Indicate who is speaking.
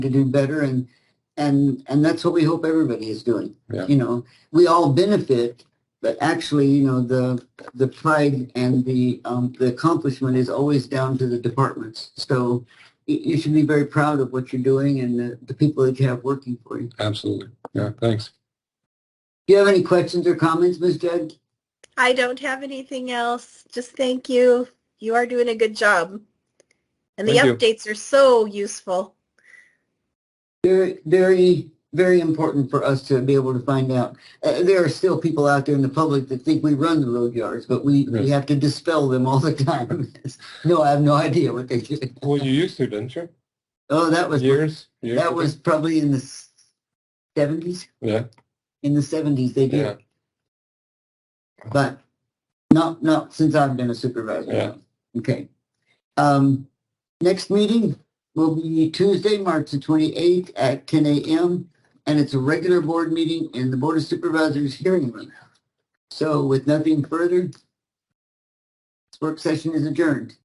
Speaker 1: to do better and and and that's what we hope everybody is doing
Speaker 2: Yeah.
Speaker 1: you know we all benefit but actually you know the the pride and the um, the accomplishment is always down to the departments so you, you should be very proud of what you're doing and the, the people that you have working for you
Speaker 2: Absolutely. Yeah, thanks.
Speaker 1: do you have any questions or comments ms judd
Speaker 3: I don't have anything else. Just thank you. You are doing a good job. And the
Speaker 2: Thank you.
Speaker 3: updates are so useful.
Speaker 1: Very, very, very important for us to be able to find out. Uh, there are still people out there in the public that think we run the road yards, but we, we
Speaker 2: Right.
Speaker 1: have to dispel them all the time. no, I have no idea what they do.
Speaker 2: Well, you used to, didn't you?
Speaker 1: Oh, that was
Speaker 2: Years? years
Speaker 1: that
Speaker 2: ago?
Speaker 1: was probably in the seventies.
Speaker 2: Yeah,
Speaker 1: In the seventies, they did,
Speaker 2: yeah,
Speaker 1: but not not since I've been a supervisor.
Speaker 2: Yeah.
Speaker 1: Okay. Um, next meeting will be Tuesday, March the twenty-eighth at ten AM. And it's a regular board meeting in the Board of Supervisors hearing room. So with nothing further, this work session is adjourned.